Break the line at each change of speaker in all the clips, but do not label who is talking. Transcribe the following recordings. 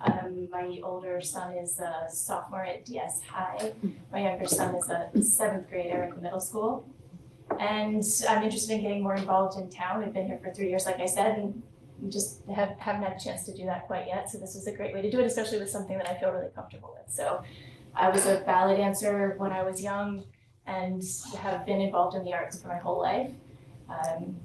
Um, my older son is a sophomore at DS High. My younger son is a seventh grader at the middle school. And I'm interested in getting more involved in town. I've been here for three years, like I said, and we just have, haven't had a chance to do that quite yet. So this is a great way to do it, especially with something that I feel really comfortable with. So I was a ballet dancer when I was young and have been involved in the arts for my whole life. Um,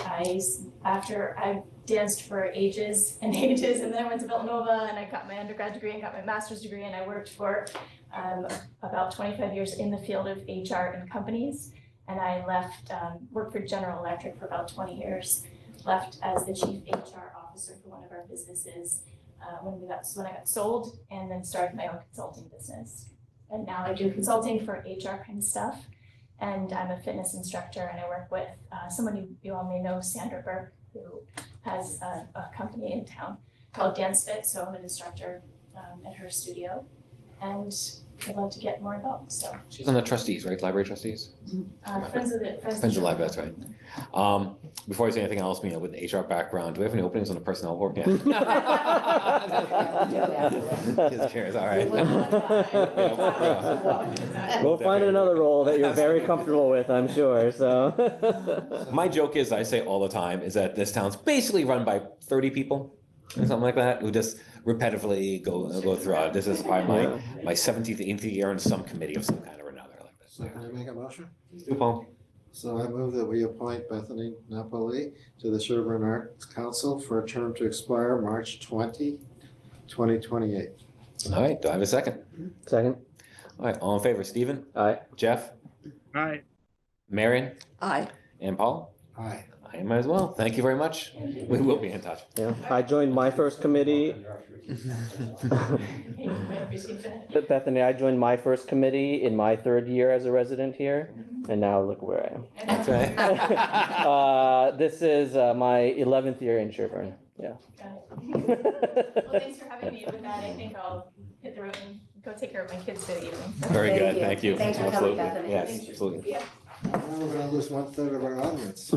I, s- after I danced for ages and ages and then I went to Villanova and I got my undergrad degree and got my master's degree and I worked for um, about 25 years in the field of HR and companies. And I left, um, worked for General Electric for about 20 years, left as the chief HR officer for one of our businesses uh, when we got, when I got sold and then started my own consulting business. And now I do consulting for HR kind of stuff. And I'm a fitness instructor and I work with uh, someone you, you all may know, Sandra Burke, who has a, a company in town called Dance Fit, so I'm an instructor um, at her studio. And I'd love to get more involved, so
She's on the trustees, right? Library trustees?
uh, friends of the, friends of the.
Friends of the library, that's right. Um, before I say anything else, Mina, with the HR background, do we have any openings on the personnel board? Yeah. Just curious, all right.
Go find another role that you're very comfortable with, I'm sure, so.
My joke is, I say all the time, is that this town's basically run by thirty people or something like that, who just repetitively go, go throughout. This is probably my, my seventeenth, eighth year in some committee of some kind or another like this.
So can I make a motion?
Do Paul?
So I move that we appoint Bethany Napoli to the Sherburne Arts Council for a term to expire March 20, 2028.
All right, do I have a second?
Second,
All right, all in favor, Stephen,
aye,
Jeff,
Aye.
Marion,
Aye.
and Paul?
Aye.
I am as well. Thank you very much. We will be in touch.
yeah, I joined my first committee. Bethany, I joined my first committee in my third year as a resident here, and now look where I am.
That's right.
Uh, this is uh, my eleventh year in Sherburne. Yeah.
Well, thanks for having me with that. I think I'll hit the road and go take care of my kids for the evening.
Very
Thank
good.
you.
Thank you.
Thanks for coming,
Absolutely.
Bethany.
Yes, absolutely.
Now we're gonna lose one third of our audience.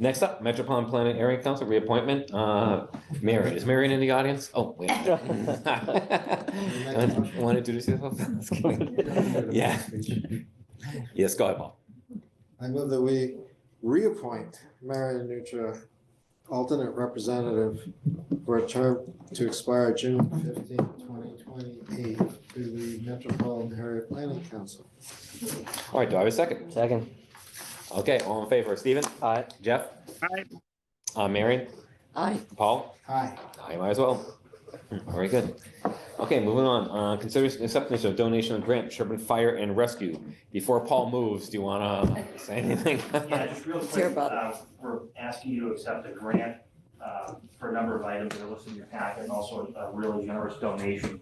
Next up, Metropolitan Planning Area Council reappointment. Uh, Marion, is Marion in the audience? Oh, wait. Want to introduce yourself? Just kidding. Yeah. Yes, go ahead, Paul.
I move that we reappoint Marion Nutra, alternate representative for a term to expire June 15, 2028 to the Metropolitan Area Planning Council.
All right, do I have a second?
Second,
Okay, all in favor, Stephen,
aye,
Jeff,
Aye.
uh, Marion,
Aye.
Paul?
Aye.
I might as well. Very good. Okay, moving on. Uh, consider acceptance of donation of grant, Sherburne Fire and Rescue. Before Paul moves, do you wanna say anything?
Yeah, just real
It's your
quick,
vote.
uh, we're asking you to accept a grant uh, for a number of items that are listed in your packet, and also a really generous donation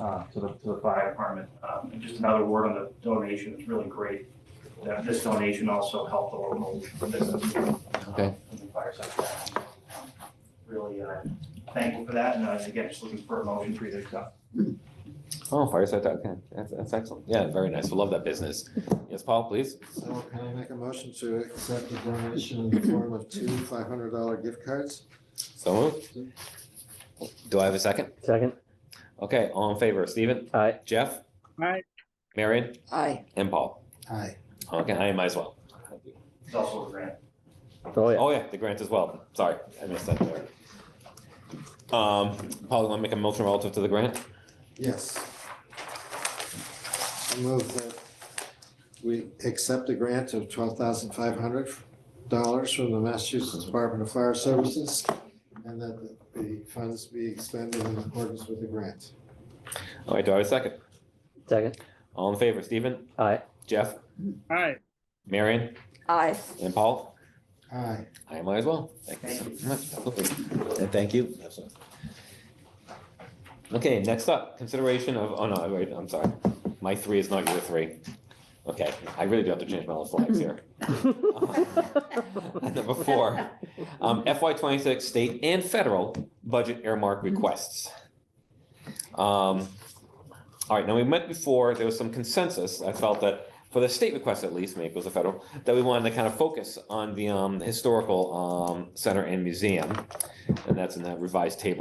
uh, to the, to the fire department. Um, And just another word on the donation, it's really great that this donation also helped the local business. uh,
Okay.
in the fire sector. Really uh, thankful for that, and uh, again, just looking for a motion for you to accept.
Oh, Fireside, okay, that's, that's excellent. Yeah, very nice. We love that business. Yes, Paul, please.
So can I make a motion to accept a donation in the form of two five hundred dollar gift cards?
So moved. Do I have a second?
second,
Okay, all in favor, Stephen,
aye,
Jeff?
Aye.
Marion
Aye.
and Paul.
Aye.
Okay, I might as well.
It's also a grant.
oh yeah,
Oh, yeah, the grant as well. Sorry, I missed that there. Um, Paul, you wanna make a motion relative to the grant?
Yes. I move that we accept a grant of twelve thousand five hundred dollars from the Massachusetts Department of Fire Services and that the funds be expended in accordance with the grant.
All right, do I have a second?
second,
All in favor, Stephen,
aye,
Jeff,
Aye.
Marion,
Aye.
and Paul?
Aye.
I might as well. Thank you so much. Absolutely. And thank you. Absolutely. Okay, next up, consideration of, oh no, wait, I'm sorry. My three is not your three. Okay, I really do have to change my little flags here. Number four, um, FY twenty-six state and federal budget earmark requests. Um, all right, now we met before, there was some consensus, I felt that, for the state request at least, maybe it was the federal, that we wanted to kind of focus on the, um, historical, um, center and museum. And that's in that revised table